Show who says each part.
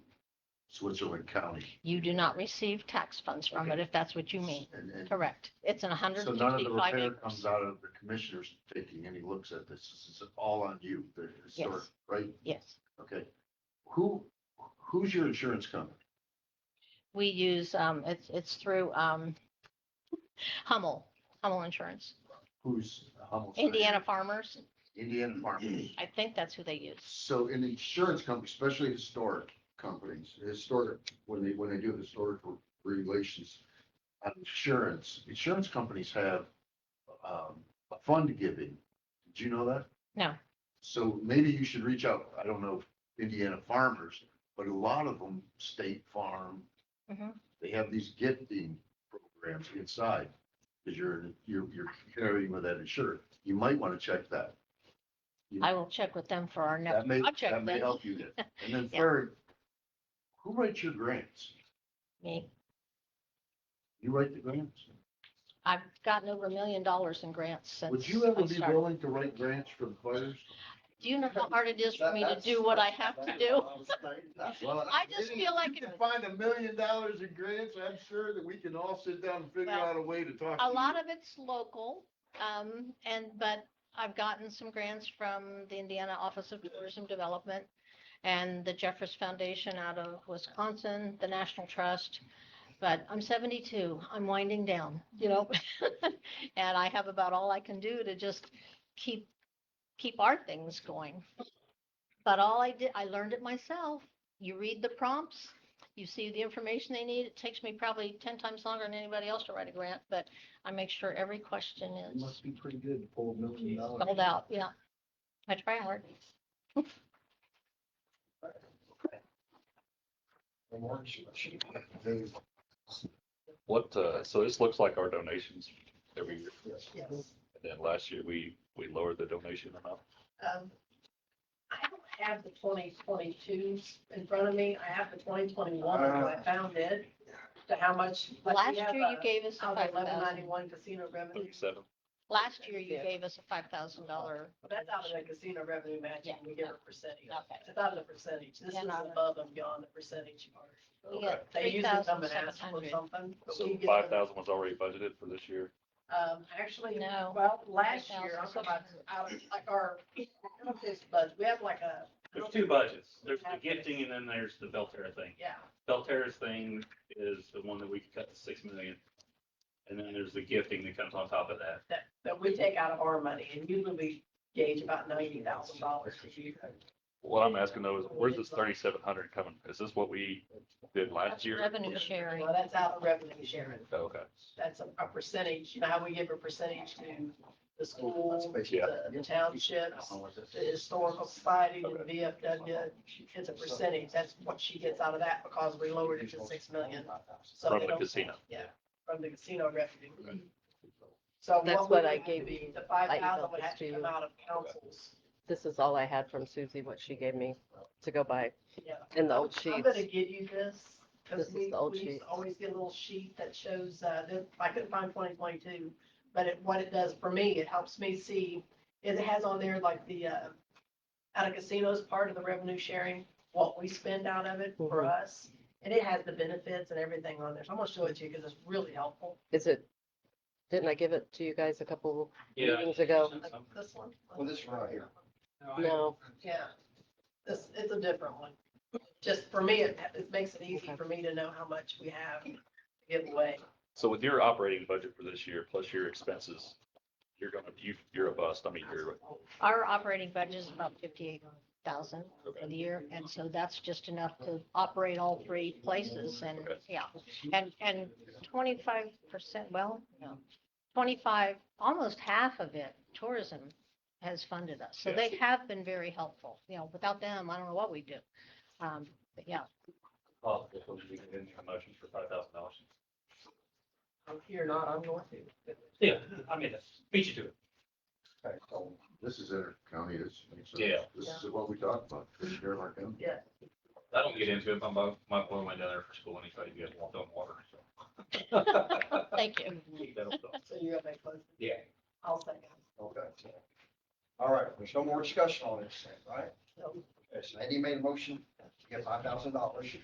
Speaker 1: Switzerland County.
Speaker 2: You do not receive tax funds from it,
Speaker 1: Okay.
Speaker 2: if that's what you mean.
Speaker 1: And- and
Speaker 2: Correct. It's an hundred
Speaker 1: So
Speaker 2: and
Speaker 1: none of the
Speaker 2: fifty-five
Speaker 1: repair
Speaker 2: acres.
Speaker 1: comes out of the commissioners taking any looks at this. This is all on you, the historic,
Speaker 2: Yes.
Speaker 1: right?
Speaker 2: Yes.
Speaker 1: Okay. Who, who's your insurance company?
Speaker 2: We use, um, it's, it's through, um, Hummel, Hummel Insurance,
Speaker 1: Who's Hummel's?
Speaker 2: Indiana Farmers.
Speaker 1: Indiana Farm.
Speaker 2: I think that's who they use.
Speaker 1: So an insurance company, especially historic companies, historic, when they, when they do historical relations, on insurance, insurance companies have um, a fund giving. Did you know that?
Speaker 2: No.
Speaker 1: So maybe you should reach out, I don't know, Indiana farmers, but a lot of them, State Farm,
Speaker 2: Mhm.
Speaker 1: they have these gifting programs inside. Cause you're, you're, you're carrying with that insurer. You might want to check that.
Speaker 2: I will check with them for our next
Speaker 1: That may,
Speaker 2: project
Speaker 1: that may
Speaker 2: then.
Speaker 1: help you there. And then
Speaker 2: Yeah.
Speaker 1: third, who writes your grants?
Speaker 2: Me,
Speaker 1: You write the grants?
Speaker 2: I've gotten over a million dollars in grants since.
Speaker 1: Would you ever
Speaker 2: I
Speaker 1: be
Speaker 2: started.
Speaker 1: willing to write grants for the fires?
Speaker 2: Do you know how hard it is for me to do what I have to do?
Speaker 1: Well,
Speaker 2: I just feel like
Speaker 1: You
Speaker 2: it-
Speaker 1: can find a million dollars in grants, I'm sure that we can all sit down and figure
Speaker 2: Well,
Speaker 1: out a way to talk.
Speaker 2: A lot of it's local, um, and, but I've gotten some grants from the Indiana Office of Tourism Development and the Jeffers Foundation out of Wisconsin, the National Trust. But I'm seventy-two, I'm winding down, you know? And I have about all I can do to just keep, keep our things going. But all I did, I learned it myself. You read the prompts, you see the information they need. It takes me probably ten times longer than anybody else to write a grant, but I make sure every question
Speaker 3: It
Speaker 2: is
Speaker 3: must be pretty good to pull a million dollars.
Speaker 2: spelled out, yeah. I try hard.
Speaker 3: in orange.
Speaker 4: What, uh, so this looks like our donations every year.
Speaker 5: Yes.
Speaker 4: And then last year, we, we lowered the donation amount.
Speaker 5: Um, I don't have the twenty twenty-two in front of me. I have the twenty twenty-one, I
Speaker 4: Uh-huh.
Speaker 5: found it, to how much. like, we
Speaker 2: Last
Speaker 5: have
Speaker 2: year you
Speaker 5: a-
Speaker 2: gave us a
Speaker 5: Out
Speaker 2: five
Speaker 5: of eleven
Speaker 2: thousand.
Speaker 5: ninety-one casino revenue,
Speaker 4: Thirty-seven.
Speaker 2: Last year you
Speaker 5: Yeah.
Speaker 2: gave us a five thousand dollar.
Speaker 5: But that's out of the casino revenue matching, we give a percentage.
Speaker 2: Okay.
Speaker 5: It's out of the percentage. This is
Speaker 2: And out of-
Speaker 5: above and beyond the percentage. part.
Speaker 2: You got
Speaker 5: They usually come and ask for
Speaker 2: 3,700.
Speaker 5: something. but we
Speaker 4: So
Speaker 5: give
Speaker 4: five
Speaker 5: them-
Speaker 4: thousand was already budgeted for this year.
Speaker 5: Um, actually,
Speaker 2: No.
Speaker 5: well, last year, I'm
Speaker 2: 3,600.
Speaker 5: about, I was like, our, I don't know if it's budget, we have like a. I
Speaker 6: There's
Speaker 5: don't
Speaker 6: two
Speaker 5: think-
Speaker 6: budgets. There's the gifting and then there's the Belterra thing.
Speaker 5: Yeah.
Speaker 6: Belterra's thing is the one that we could cut to six million. And then there's the gifting that comes on top of that.
Speaker 5: that, that we take out of our money, and usually we gauge about ninety thousand dollars a year.
Speaker 4: What I'm asking though is, where's this thirty-seven hundred coming? Is this what we did last
Speaker 2: That's
Speaker 4: year?
Speaker 2: Revenue sharing.
Speaker 5: Well, that's out of revenue sharing,
Speaker 4: Okay.
Speaker 5: that's a, a percentage, you know, how we give a percentage to the schools,
Speaker 4: Yeah.
Speaker 5: the the townships, the historical society, and the VFW, it's a percentage, that's what she gets out of that, because we lowered it to six million. So they
Speaker 4: From the
Speaker 5: don't-
Speaker 4: casino.
Speaker 5: Yeah, from the casino revenue. So
Speaker 7: That's
Speaker 5: we
Speaker 7: what
Speaker 5: would
Speaker 7: I
Speaker 5: have to
Speaker 7: gave
Speaker 5: be-
Speaker 7: you.
Speaker 5: The five
Speaker 7: I
Speaker 5: thousand
Speaker 7: emailed
Speaker 5: would
Speaker 7: this
Speaker 5: have
Speaker 7: to
Speaker 5: to
Speaker 7: you.
Speaker 5: come out of councils,
Speaker 7: This is all I had from Susie, what she gave me to go by
Speaker 5: yeah.
Speaker 7: in the old
Speaker 5: I'm
Speaker 7: sheets.
Speaker 5: gonna give you this,
Speaker 7: This
Speaker 5: because
Speaker 7: is
Speaker 5: we,
Speaker 7: the old
Speaker 5: we used
Speaker 7: sheet.
Speaker 5: to always get a little sheet that shows, uh, the- I couldn't find twenty twenty-two. But it, what it does for me, it helps me see, it has on there like the, uh, out of casinos part of the revenue sharing, what we spend out of it for
Speaker 7: Mhm.
Speaker 5: us. And it has the benefits and everything on there, so I'm gonna show it to you, because it's really helpful.
Speaker 7: Is it, didn't I give it to you guys a couple
Speaker 6: Yeah.
Speaker 7: meetings ago?
Speaker 5: Like this one.
Speaker 3: Well, this one right here.
Speaker 7: No,
Speaker 5: Yeah, this, it's a different one. Just for me, it, it makes it easy
Speaker 7: Okay.
Speaker 5: for me to know how much we have to give away.
Speaker 4: So with your operating budget for this year, plus your expenses, you're gonna, you, you're a bust. I mean, you're,
Speaker 2: Our operating budget is about fifty-eight thousand for the year, and so that's just enough to operate all three places and,
Speaker 4: Okay.
Speaker 2: yeah. And, and twenty-five percent, well, no, twenty-five, almost half of it, tourism has funded us. So
Speaker 4: Yeah.
Speaker 2: they have been very helpful, you know, without them, I don't know what we'd do. Um, but yeah,
Speaker 4: oh, we can get a motion for five thousand dollars.
Speaker 5: I'm here, not, I'm going to.
Speaker 6: Yeah, I mean, beat you to it.
Speaker 1: This is inter county, this makes sense.
Speaker 6: Yeah.
Speaker 1: This is what we talked about, this year, like, um,
Speaker 6: I don't get into it. My, mo- my boy went down there for school and he said he had walked on water. so.
Speaker 2: thank you.
Speaker 6: That'll stop.
Speaker 5: So you're gonna make close,
Speaker 6: Yeah.
Speaker 5: I'll second.
Speaker 3: Okay. All right, there's no more discussion on this, thing, right?
Speaker 5: So
Speaker 3: Yes, Andy made a motion to get five thousand dollars.